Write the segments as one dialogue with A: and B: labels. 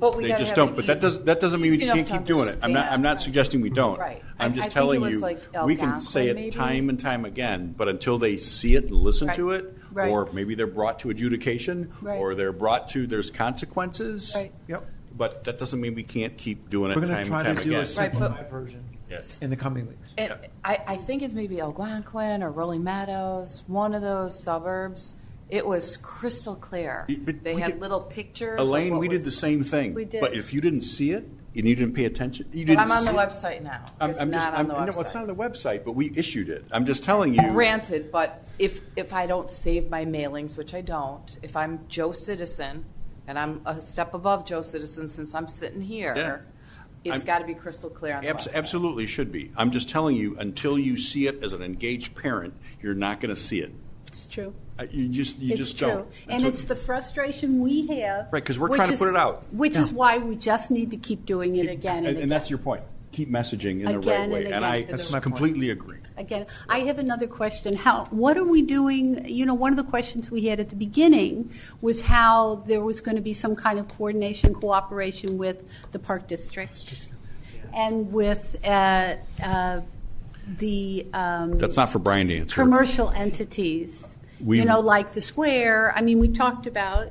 A: But we
B: They
A: gotta
B: just
A: have e-
B: don't,
A: it
B: but that
A: easy-
B: doesn't, that doesn't mean we
A: easy enough
B: can't
A: to
B: keep doing it. I'm not, I'm
A: understand.
B: not suggesting we don't.
A: Right.
B: I'm
A: I- I
B: just
A: think it
B: telling
A: was
B: you,
A: like
B: we can say
A: Algonquin, maybe?
B: it time and time again, but until they see it and listen
A: Right.
B: to it,
A: Right.
B: or maybe they're brought to adjudication,
A: Right.
B: or they're brought to, there's consequences.
A: Right.
C: Yep.
B: But that doesn't mean we can't keep doing
C: We're
B: it
C: going to
B: time and
C: try
B: time
C: to do a
B: again.
A: Right, but-
C: simplified version
B: Yes.
C: in the coming weeks.
A: And
B: Yeah.
A: I, I think it's maybe Algonquin or Rolling Meadows, one of those suburbs. It was crystal clear.
B: Y- but
A: They
B: we
A: had
B: did-
A: little pictures. of
B: Elaine,
A: what
B: we did
A: was-
B: the same thing.
A: We did.
B: But if you didn't see it, and you didn't pay attention, you
A: But
B: didn't
A: I'm on the
B: see it-
A: website now.
B: I'm-
A: It's
B: I'm just-
A: not on
B: I'm-
A: the
B: No, it's not
A: website.
B: on the website, but we issued it. I'm just telling you.
A: Granted, but if, if I don't save my mailings, which I don't, if I'm Joe Citizen, and I'm a step above Joe Citizen since I'm sitting
B: Yeah.
A: here, it's
B: I'm-
A: got to be crystal clear on the
B: Abs-
A: website.
B: Absolutely should be. I'm just telling you, until you see it as an engaged parent, you're not going to see it.
D: It's true.
B: Uh, You just, you
D: It's
B: just don't.
D: true. And
B: Until-
D: it's the frustration we have.
B: Right, 'cause we're
D: which
B: trying to
D: is-
B: put it out.
D: Which is why we just need to keep doing it again
B: And
D: and again.
B: and that's your point. Keep messaging in the
D: Again
B: right
D: and
B: way.
D: again.
B: And I
D: That's
C: my point.
B: completely agree.
D: Again, I have another question. How, what are we doing? You know, one of the questions we had at the beginning was how there was going to be some kind of coordination, cooperation with the park district and with uh, uh, the um,
B: That's not for Brian to answer.
D: commercial entities.
B: We-
D: You know, like the square. I mean, we talked about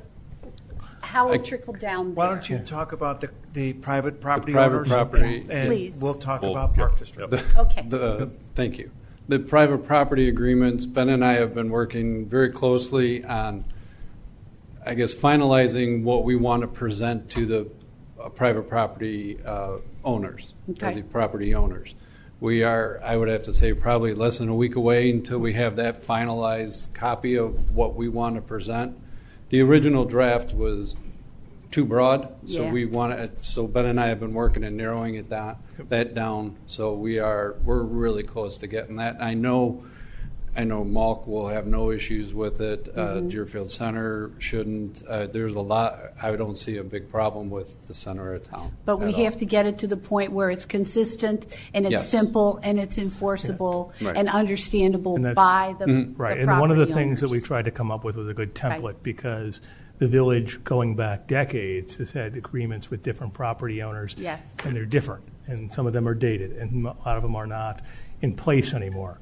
D: how it trickled down there.
C: Why don't you talk about the, the private property
E: private
C: owners?
E: property.
D: Please.
C: And we'll talk
B: Well,
C: about
B: yeah,
C: Park
B: yeah.
C: District.
D: Okay.
E: The, uh, thank you. The private property agreements, Ben and I have been working very closely on, I guess, finalizing what we want to present to the uh, private property uh, owners, or
D: Okay.
E: the property owners. We are, I would have to say, probably less than a week away until we have that finalized copy of what we want to present. The original draft was too broad, so
A: Yeah.
E: we want to, so Ben and I have been working and narrowing it down, that down, so we are, we're really close to getting that. I know, I know Malk will have no issues with it,
D: Mm-hmm.
E: uh, Deerfield Center shouldn't, uh, there's a lot, I don't see a big problem with the center of town.
D: But we
E: at all.
D: have to get it to the point where it's consistent and it's
E: Yes.
D: simple and it's enforceable
E: Right.
D: and understandable
F: And that's-
D: by the the
F: Right, and one of the
D: property
F: things that we
D: owners.
F: tried to come up with was a good template, because the village, going back decades, has had agreements with different property owners.
D: Yes.
F: And they're different, and some of them are dated, and a lot of them are not in place anymore.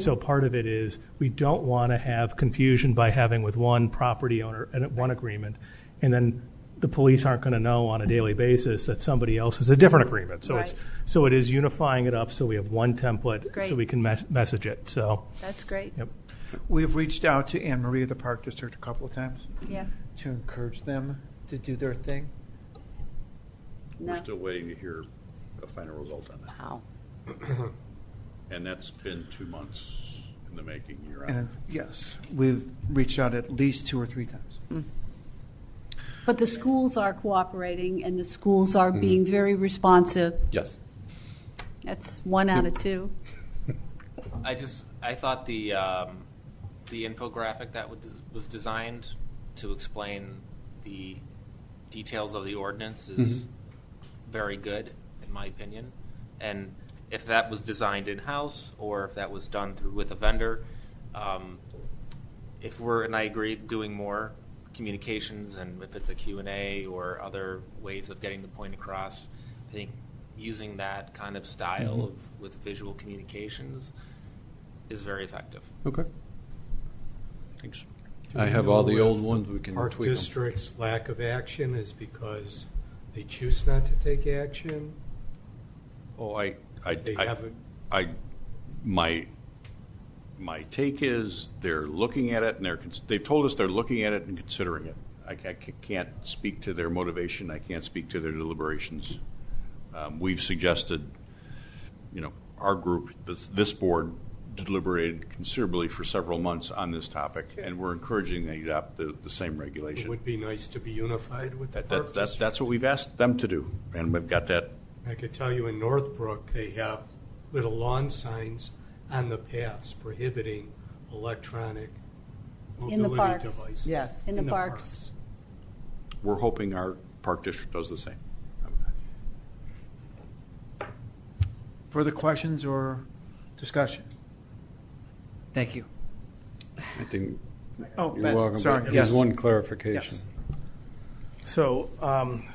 D: Mm.
F: so part of it is, we don't want to have confusion by having with one property owner and one agreement, and then the police aren't going to know on a daily basis that somebody else has a different agreement. So it's,
D: Right.
F: so it is unifying it up, so we have one template,
D: Great.
F: so we can mes- message it, so.
D: That's great.
F: Yep.
C: We've reached out to Anne Marie of the Park District a couple of times
D: Yeah.
C: to encourage them to do their thing.
D: No.
B: We're still waiting to hear a final result on that.
A: Wow.
B: And that's been two months in the making. You're out.
C: And yes, we've reached out at least two or three times.
D: But the schools are cooperating and the schools are being very responsive.
E: Yes.
D: That's one out of two.
G: I just I thought the um, the infographic that was, was designed to explain the details of the ordinance is very good, in my opinion. And if that was designed in house or if that was done through with a vendor, um, if we're and I agree doing more communications and if it's a Q&A or other ways of getting the point across I think using that kind of style of, with visual communications is very effective.
E: Okay. Thanks. I have all the old ones, we can
H: Park
E: tweak them.
H: district's lack of action is because they choose not to take action?
B: Oh, I, I,
H: They
B: I-
H: haven't-
B: I, my, my take is they're looking at it and they're, cons- they've told us they're looking at it and considering it. I, ca- ca- can't speak to their motivation. I can't speak to their deliberations. Um, we've suggested, you know, our group, this, this board deliberated considerably for several months on this topic, and we're encouraging they adopt the, the same
H: It
B: regulation.
H: would be nice to be unified with the
B: That,
H: Park
B: that's, that's,
H: District.
B: that's what we've asked them to do, and we've got that
H: I could tell you in Northbrook, they have little lawn signs on the paths prohibiting electronic
D: In the
H: mobility
D: parks.
H: devices.
A: Yes.
D: In the parks.
B: We're hoping our park district does the same.
C: Further questions or discussion? Thank you.
E: I think,
C: Oh,
E: you're welcome.
C: Ben,
E: but
C: sorry, yes.
E: There's one clarification.
C: Yes.
F: So um,